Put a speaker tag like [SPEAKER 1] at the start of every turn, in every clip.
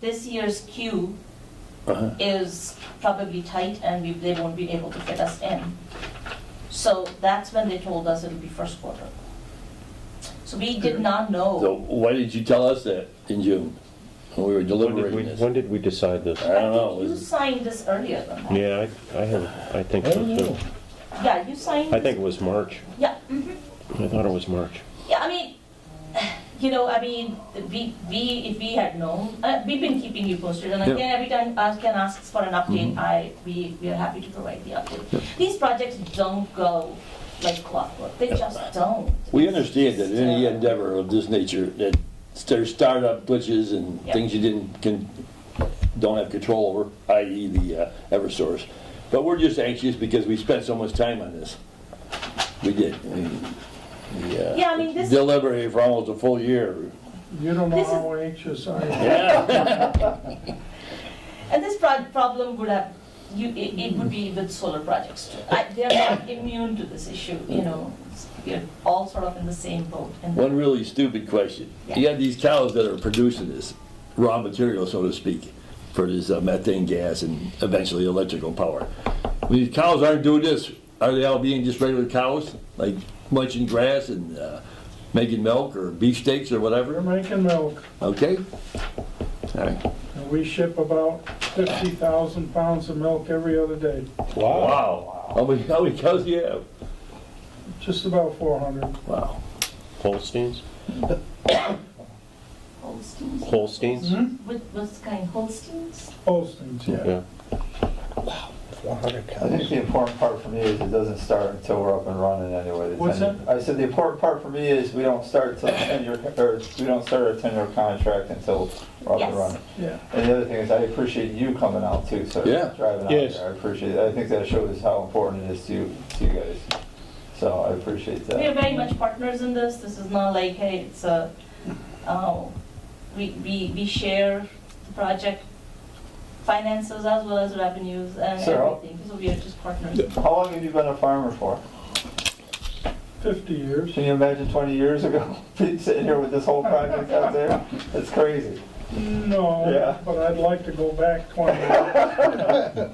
[SPEAKER 1] this year's queue
[SPEAKER 2] Uh-huh.
[SPEAKER 1] is probably tight and we, they won't be able to fit us in. So that's when they told us it'll be first quarter. So we did not
[SPEAKER 2] So
[SPEAKER 1] know.
[SPEAKER 2] why did you tell us that in June, when we were
[SPEAKER 3] When did we,
[SPEAKER 2] deliberating this?
[SPEAKER 3] when did we decide this?
[SPEAKER 2] I don't know,
[SPEAKER 1] I think you
[SPEAKER 2] was-
[SPEAKER 1] signed this earlier than that.
[SPEAKER 3] Yeah, I, I have, I think
[SPEAKER 2] I
[SPEAKER 3] so
[SPEAKER 2] don't
[SPEAKER 3] too.
[SPEAKER 2] know.
[SPEAKER 1] Yeah, you signed.
[SPEAKER 3] I think it was March.
[SPEAKER 1] Yeah, mhm.
[SPEAKER 3] I thought it was March.
[SPEAKER 1] Yeah, I mean, you know, I mean, we, we, if we had known, uh, we've been keeping you posted, and
[SPEAKER 2] Yeah. Mm-hmm.
[SPEAKER 1] again, every time Ken asks for an update, I, we, we are happy to provide the update. These projects don't go like clockwork, they just don't.
[SPEAKER 2] We understand that in any endeavor of this nature, that there's startup glitches and
[SPEAKER 1] Yeah.
[SPEAKER 2] things you didn't, can, don't have control over, i.e. the uh, Eversource. But we're just anxious because we spent so much time on this. We did. I mean, the, uh,
[SPEAKER 1] Yeah, I mean, this-
[SPEAKER 2] Deliberated for almost a full year.
[SPEAKER 4] You don't know
[SPEAKER 1] This is-
[SPEAKER 4] how anxious I am.
[SPEAKER 2] Yeah,
[SPEAKER 1] And this pro- problem would have, you, it, it would be with solar projects too. I, they're not immune to this issue, you know, we're all sort of in the same boat. and-
[SPEAKER 2] one really stupid question. You got these cows that are producing this raw material, so to speak, for this uh, methane gas and eventually electrical power. When these cows aren't doing this, are they all being just regular cows, like munching grass and uh, making milk or beefsteaks or
[SPEAKER 4] We're
[SPEAKER 2] whatever?
[SPEAKER 4] making milk,
[SPEAKER 2] Okay? All right.
[SPEAKER 4] and we ship about 50,000 pounds of milk every other day,
[SPEAKER 2] Wow. How many, how many cows do you have?
[SPEAKER 4] just about 400.
[SPEAKER 2] Wow.
[SPEAKER 3] Holsteins?
[SPEAKER 1] Holsteins,
[SPEAKER 3] Holsteins?
[SPEAKER 1] what, what's kind, Holsteins?
[SPEAKER 4] Postings, yeah.
[SPEAKER 3] Yeah.
[SPEAKER 5] I think the important part for me is it doesn't start until we're up and running anyway. The
[SPEAKER 4] What's
[SPEAKER 5] 10 I said the important part for me is we don't start till ten-year, or we don't start a ten-year contract until we're up
[SPEAKER 1] Yes.
[SPEAKER 5] and running.
[SPEAKER 4] Yeah.
[SPEAKER 5] And the other thing is I appreciate you coming out too, so
[SPEAKER 2] Yeah.
[SPEAKER 5] driving out
[SPEAKER 3] Yes.
[SPEAKER 5] there. I appreciate it. I think that shows how important it is to you, to you guys. So I appreciate
[SPEAKER 1] We are
[SPEAKER 5] that.
[SPEAKER 1] very much partners in this. This is not like, hey, it's a, oh, we, we, we share the project finances as well as revenues and
[SPEAKER 5] Sir, I'll-
[SPEAKER 1] everything. So we are just partners.
[SPEAKER 5] How long have you been a farmer for?
[SPEAKER 4] 50 years.
[SPEAKER 5] Can you imagine twenty years ago, sitting here with this whole project out there? It's crazy.
[SPEAKER 4] No,
[SPEAKER 5] Yeah.
[SPEAKER 4] but I'd like to go back 20 years.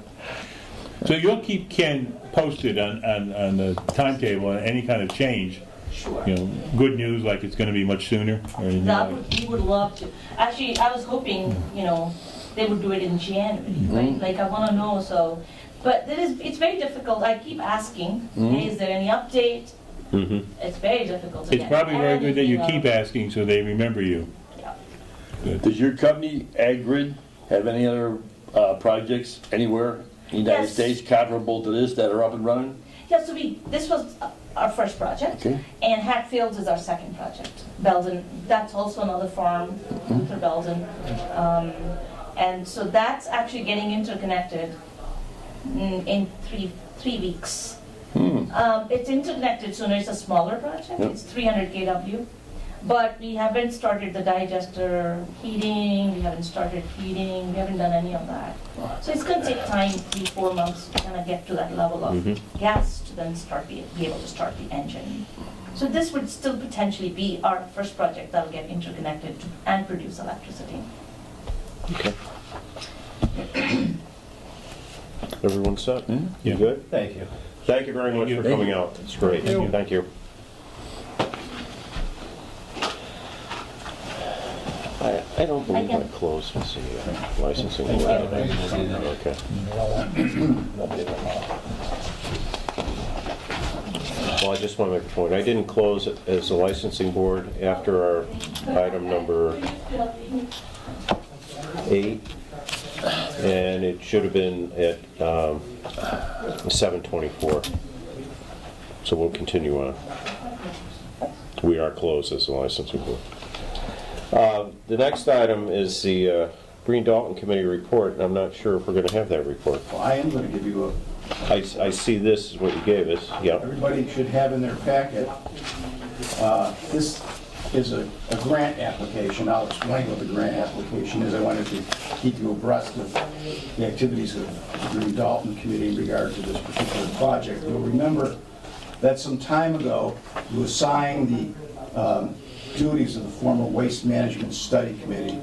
[SPEAKER 6] So you'll keep Ken posted on, on, on the timetable and any kind of change,
[SPEAKER 1] Sure.
[SPEAKER 6] you know, good news, like it's gonna be much sooner or anything
[SPEAKER 1] That
[SPEAKER 6] like
[SPEAKER 1] would, we would love to. Actually, I was hoping, you know, they would do it in January,
[SPEAKER 6] Mm-hmm.
[SPEAKER 1] right? Like, I wanna know, so, but it is, it's very difficult. I keep asking,
[SPEAKER 6] Mm-hmm.
[SPEAKER 1] hey, is there any update?
[SPEAKER 3] Mm-hmm.
[SPEAKER 1] It's very difficult to
[SPEAKER 6] It's
[SPEAKER 1] get
[SPEAKER 6] probably very good that you
[SPEAKER 1] anything
[SPEAKER 6] keep
[SPEAKER 1] out.
[SPEAKER 6] asking so they remember you.
[SPEAKER 2] Does your company, AgGrid, have any other uh, projects anywhere in the United
[SPEAKER 1] Yes.
[SPEAKER 2] States comparable to this that are up and running?
[SPEAKER 1] Yeah, so we, this was uh, our first project.
[SPEAKER 2] Okay.
[SPEAKER 1] And Hatfields is our second project. Belden, that's also another farm,
[SPEAKER 2] Mm-hmm.
[SPEAKER 1] Luther Belden. Um, And so that's actually getting interconnected mm, in three, three weeks. Um, It's interconnected sooner, it's a smaller project,
[SPEAKER 2] Hmm. Yep.
[SPEAKER 1] it's 300 KW. But we haven't started the digester heating, we haven't started heating, we haven't done any of that. So it's gonna take time, three, four months, to kind of get to that level of gas to then start, be be able to start the engine. So this would still potentially be our first project that'll get interconnected to- and produce electricity.
[SPEAKER 3] Okay. Everyone set? You good?
[SPEAKER 5] Thank you.
[SPEAKER 3] Thank you very much
[SPEAKER 6] you.
[SPEAKER 3] for
[SPEAKER 2] Thank
[SPEAKER 3] coming
[SPEAKER 2] you.
[SPEAKER 3] out. It's great.
[SPEAKER 4] Thank you.
[SPEAKER 3] Thank you. I, I don't believe I
[SPEAKER 1] can-
[SPEAKER 3] closed this uh, licensing. Okay. Well, I just want to make a point. I didn't close it as the licensing board after our item number eight. And it should have been at um, 7:24. So we'll continue on. We are closed as a licensing board. Uh, The next item is the uh, Green Dalton Committee report, and I'm not sure if we're going to have that report.
[SPEAKER 7] Well, I am going to give you a,
[SPEAKER 3] I I see this is what you gave us, yeah.
[SPEAKER 7] everybody should have in their packet, uh, this is a a grant application. I'll explain what the grant application is. I wanted to keep you abreast of the activities of the Green Dalton Committee in regard to this particular project. You'll remember that some time ago, you assigned the um, duties of the former Waste Management Study Committee